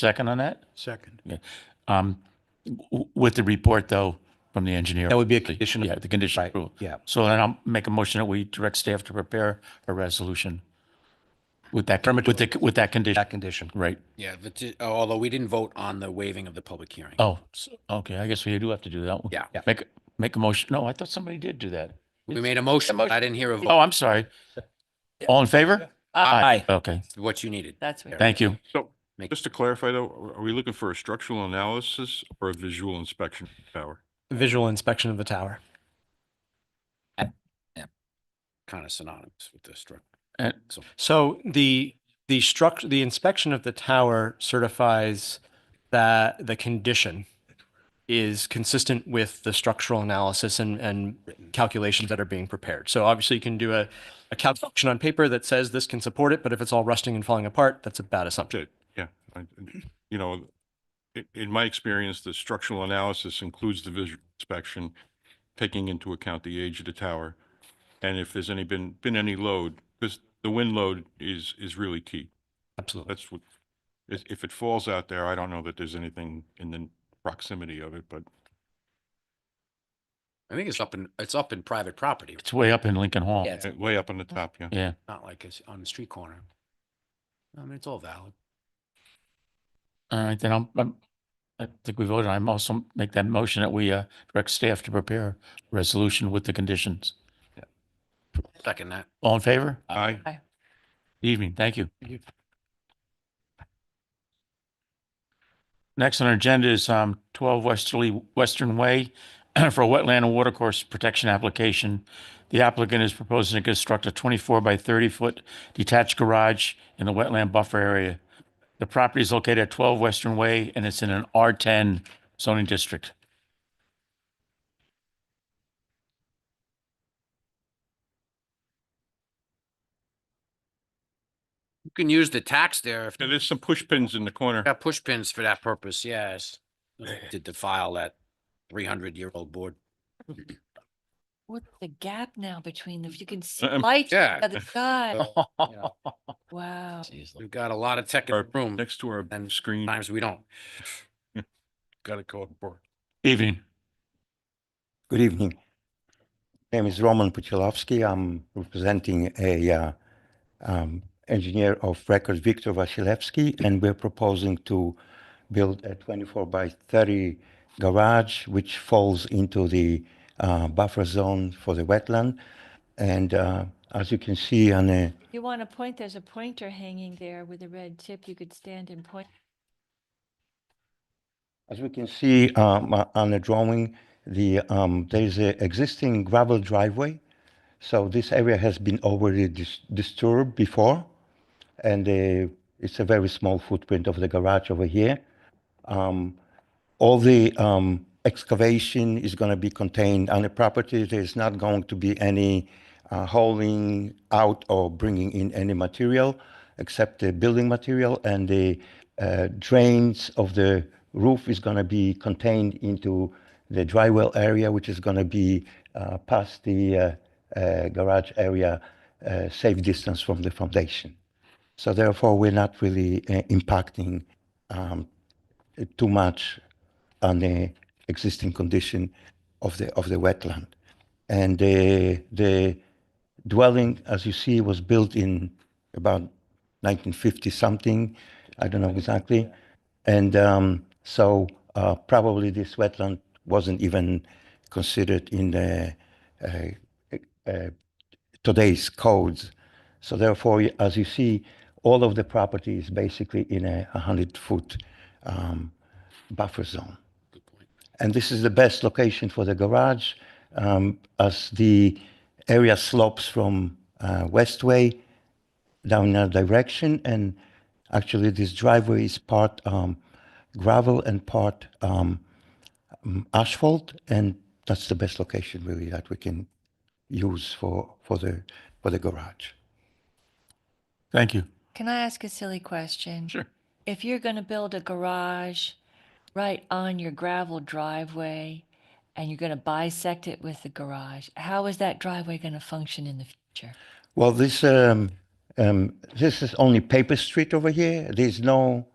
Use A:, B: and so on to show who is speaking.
A: Second on that?
B: Second.
A: Um, w- with the report though, from the engineer.
C: That would be a condition of-
A: Yeah, the condition.
C: Right,
A: approval.
C: yeah.
A: So then I'll make a motion that we direct staff to prepare a resolution with that,
C: Affirmative.
A: with the, with that condition,
C: that condition.
A: right?
D: Yeah, but t- although we didn't vote on the waiving of the public hearing.
A: Oh, s- okay, I guess we do have to do that. one.
D: Yeah.
C: Yeah.
A: Make, make a motion. No, I thought somebody did do that.
D: We made a motion, but I didn't hear a
A: Oh,
D: vote,
A: I'm sorry. All in favor?
C: Aye.
A: Okay,
D: what you needed.
E: That's what.
A: thank you.
F: So,
D: Make-
F: just to clarify though, are- are we looking for a structural analysis or a visual inspection power?
C: Visual inspection of the tower.
D: Kind of synonymous with the structure.
A: And
D: So
C: So the, the structure, the inspection of the tower certifies that the condition is consistent with the structural analysis and, and calculations that are being prepared. So obviously you can do a, a calculation on paper that says this can support it, but if it's all rusting and falling apart, that's a bad assumption.
F: Okay, yeah, I, you know, i- in my experience, the structural analysis includes the visual inspection, taking into account the age of the tower, and if there's any, been, been any load, because the wind load is, is really key.
C: Absolutely.
F: That's what, if, if it falls out there, I don't know that there's anything in the proximity of it, but
D: I think it's up in, it's up in private property,
A: it's way up in Lincoln Hall.
E: Yeah.
F: uh, way up on the top, yeah.
A: Yeah.
D: not like it's on the street corner. I mean, it's all valid.
A: All right, then I'm, I'm, I think we voted. I'm also make that motion that we, uh, direct staff to prepare resolution with the conditions.
D: Second that.
A: All in favor?
F: Aye.
A: Evening, thank you. Next on our agenda is, um, twelve Westerly, Western Way for a wetland and watercourse protection application. The applicant is proposing to construct a twenty-four by thirty-foot detached garage in the wetland buffer area. The property is located at twelve Western Way and it's in an R ten zoning district.
D: You can use the tax there if
F: Yeah,
D: you
F: There's some push pins in the corner.
D: got push pins for that purpose, yes. Did defile that three hundred year old board.
E: What's the gap now between the, you can see
F: Um,
E: lights on
D: yeah.
E: the other side.
D: Yeah.
E: Wow.
D: We've got a lot of tech in
F: Or
D: the room,
F: Next to our
D: And
F: screen.
D: times we don't.
F: Gotta go for
A: Evening.
G: Good evening. My name is Roman Puchilovsky. I'm representing a uh, um, engineer of record, Viktor Vasilevsky, and we're proposing to build a 24 by 30 garage, which falls into the uh, buffer zone for the wetland. And uh, as you can see on a
E: You want to point, there's a pointer hanging there with a red tip. You could stand and point.
G: As we can see um, uh, on the drawing, the, um, there is an existing gravel driveway. So this area has been already dis- disturbed before. And uh, it's a very small footprint of the garage over here. Um, all the um, excavation is going to be contained on the property. There's not going to be any uh, hauling out or bringing in any material except the building material and the uh, drains of the roof is going to be contained into the dry well area, which is going to be uh, past the uh, uh, garage area, uh, safe distance from the foundation. So therefore, we're not really uh, impacting um, too much on the uh, existing condition of the of the wetland. And the the dwelling, as you see, was built in about 1950 something. I don't know exactly. And um, so uh, probably this wetland wasn't even considered in the uh, uh, today's codes. So therefore, as you see, all of the property is basically in a 100-foot um, buffer zone. And this is the best location for the garage um, as the area slopes from uh, Westway down in our direction. And actually, this driveway is part um, gravel and part um, um, asphalt. And that's the best location really that we can use for, for the, for the garage.
A: Thank you.
E: Can I ask a silly question?
A: Sure.
E: If you're going to build a garage right on your gravel driveway and you're going to bisect it with the garage, how is that driveway going to function in the future?
G: Well, this, um, um, this is only paper street over here. There's no